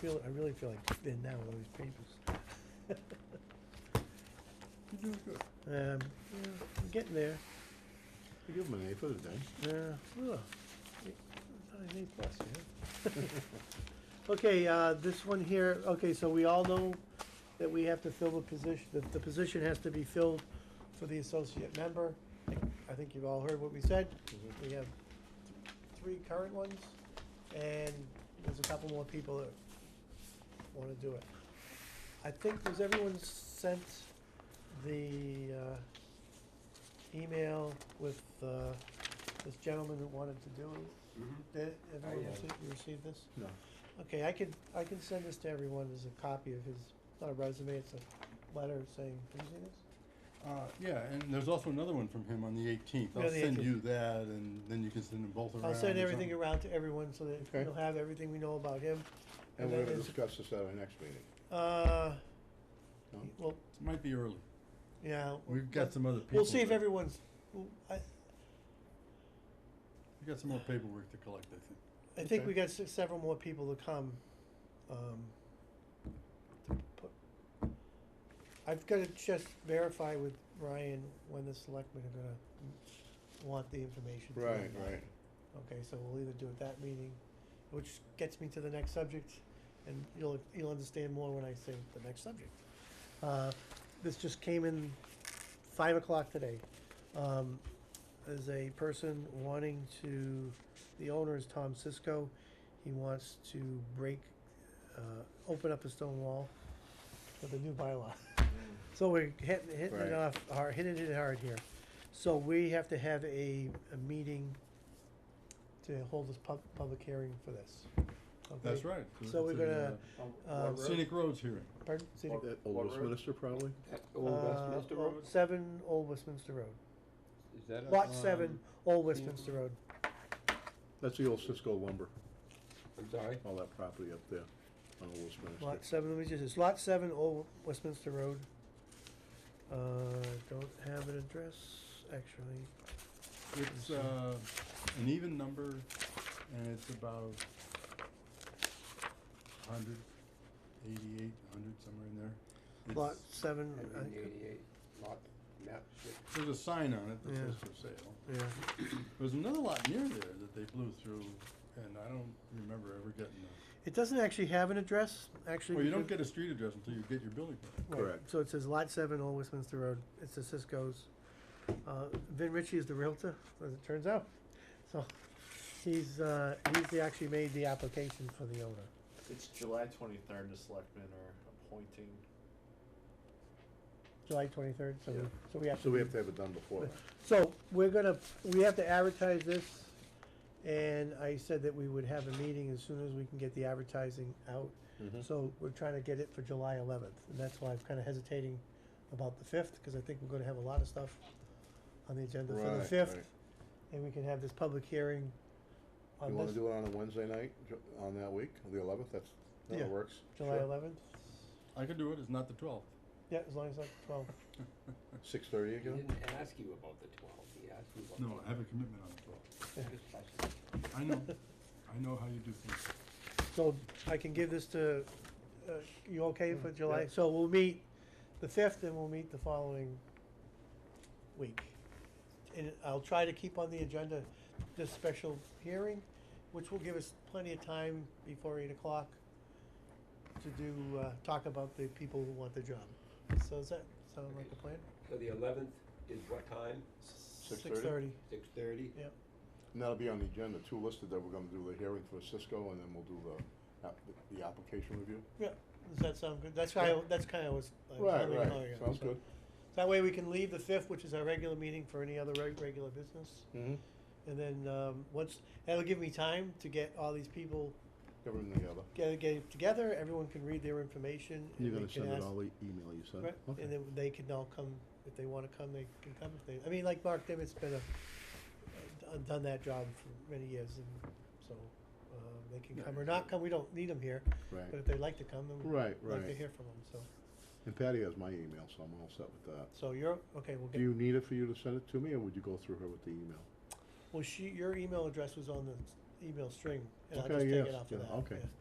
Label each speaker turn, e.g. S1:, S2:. S1: feel, Oh, I really feel like thin now with all these papers.
S2: You're doing good.
S1: Um, yeah, I'm getting there,
S2: You give them an A for the day.
S1: yeah, ugh, eight- not an A plus, yeah. Okay, uh, this one here, okay, so we all know that we have to fill the position, that the position has to be filled for the associate member. I think you've all heard what we said, we have three current ones, and there's a couple more people that wanna do it. I think, was everyone sent the, uh, email with, uh, this gentleman that wanted to do it? Did everyone
S2: have
S1: receive, you received this?
S2: No.
S1: Okay, I can, I can send this to everyone as a copy of his, not a resume, it's a letter saying, have you seen this?
S2: Uh, yeah, and there's also another one from him on the eighteenth.
S1: Yeah,
S2: I'll
S1: the
S2: send
S1: 18th.
S2: you that and then you can send them both around.
S1: I'll send
S2: or
S1: everything
S2: something.
S1: around to everyone so that
S2: Okay.
S1: you'll have everything we know about him.
S3: And we're
S1: then
S3: gonna
S1: it's-
S3: discuss this at our next meeting.
S1: Uh,
S3: No?
S1: well,
S2: It Might be early.
S1: yeah.
S2: We've got
S1: but
S2: some other people.
S1: We'll see if
S2: that-
S1: everyone's, w- I,
S2: We've got some more paperwork to collect, I think.
S1: I think
S3: Okay.
S1: we got s- several more people to come. Um, to put, I've got to just verify with Ryan when the selectmen are gonna m- want the information. to them.
S3: Right, right.
S1: Okay, so we'll either do it that meeting, which gets me to the next subject, and you'll, you'll understand more when I say the next subject. Uh, this just came in five o'clock today. Um, there's a person wanting to, the owner is Tom Cisco. He wants to break, uh, open up a stone wall with a new bylaw. So we're hitting, hitting
S3: Right.
S1: it off, hard- hitting it hard here. So we have to have a, a meeting to hold this pub- public hearing for this. Okay?
S2: That's right.
S1: So we're
S2: It's a,
S1: gonna-
S2: uh,
S1: Um,
S2: Scenic roads hearing.
S1: Pardon? City-
S4: Or-
S3: At
S4: What
S3: Old
S4: road?
S3: Westminster probably?
S1: uh,
S4: Old Westminster
S1: oh,
S4: Road,
S1: Seven Old Westminster Road.
S4: is that a?
S1: Lot seven,
S2: um,
S1: Old Westminster Road.
S3: That's the old Cisco lumber,
S4: I'm sorry,
S3: all that property up there on Old Westminster.
S1: Lot seven, let me just, it's lot seven, Old Westminster Road. Uh, don't have an address, actually.
S2: It's, uh, an even number and it's about hundred, eighty-eight, hundred, somewhere in there. It's-
S1: Lot seven, Uh, I
S4: seventeen
S1: could-
S4: eighty-eight, lot, map, six.
S2: There's a sign on it that
S1: Yeah.
S2: says for sale.
S1: yeah,
S2: There's another lot near there that they blew through, and I don't remember ever getting a,
S1: it doesn't actually have an address, actually.
S2: well, you don't
S1: because-
S2: get a street address until you get your building permit.
S1: right,
S3: Correct.
S1: So it says lot seven, Old Westminster Road, it's the Cisco's. Uh, Vin Ritchie is the realtor, as it turns out, so he's, uh, he's the- actually made the application for the owner.
S5: It's July twenty-third, the selectmen are appointing.
S1: July twenty-third, so we,
S3: Yeah.
S1: so we have to.
S3: So we
S1: do-
S3: have to have it done before that.
S1: So, we're gonna, we have to advertise this, and I said that we would have a meeting as soon as we can get the advertising out.
S3: Mhm.
S1: So, we're trying to get it for July eleventh, and that's why I'm kinda hesitating about the fifth, cause I think we're gonna have a lot of stuff on the agenda for the
S3: Right,
S1: fifth,
S3: right.
S1: and we can have this public hearing
S3: You
S1: on
S3: wanna
S1: this,
S3: do it on a Wednesday night, ju- on that week, the eleventh, that's,
S1: Yeah.
S3: that works?
S1: July
S3: Sure.
S1: eleventh?
S2: I could do it, it's not the twelfth.
S1: Yeah, as long as that's twelve.
S3: Six thirty
S4: He
S3: again?
S4: didn't ask you about the twelve, he asked you about.
S2: No,
S4: the-
S2: I have a commitment on the twelfth.
S4: Just touching.
S2: I know, I know how you do things.
S1: So I can give this to, uh, you okay for
S3: Mm,
S1: July?
S3: yeah.
S1: So we'll meet the fifth and we'll meet the following week. And I'll try to keep on the agenda this special hearing, which will give us plenty of time before eight o'clock to do, uh, talk about the people who want the job. So does that sound like a plan?
S4: So the eleventh is what time,
S1: Six thirty,
S4: six-thirty?
S1: yep.
S3: And that'll be on the agenda, two listed, that we're gonna do the hearing for Cisco, and then we'll do the, app- the application review.
S1: Does that sound good? That's why, I- that's kinda was. I was
S3: Right,
S1: wondering how you
S3: right,
S1: got
S3: sounds
S1: it.
S3: good.
S1: That way we can leave the fifth, which is our regular meeting for any other reg- regular business.
S3: Mm-hmm.
S1: And then, um, once, that'll give me time to get all these people,
S3: Everything together.
S1: get, get it together, everyone can read their information. and
S3: You're
S1: we
S3: gonna
S1: can
S3: send it
S1: ask-
S3: all the email you sent?
S1: Right,
S3: Okay.
S1: and then they can all come, if they wanna come, they can come, if they, I mean, like Mark Dimmitt's been a, done- done that job for many years, and so, um, they can
S2: Yeah,
S1: come or not come, we don't need them here,
S3: Right.
S1: but if they'd like to come, then we'd
S3: Right,
S1: like to
S3: right.
S1: hear from them, so,
S3: And Patty has my email, so I'm all set with that.
S1: so you're, okay, we'll
S3: Do
S1: get,
S3: you need it for you to send it to me, or would you go through her with the email?
S1: well, she, your email address was on the email string, and I'll
S3: Okay,
S1: just take
S3: yes,
S1: it off
S3: yeah,
S1: of that,
S3: okay.
S1: yeah.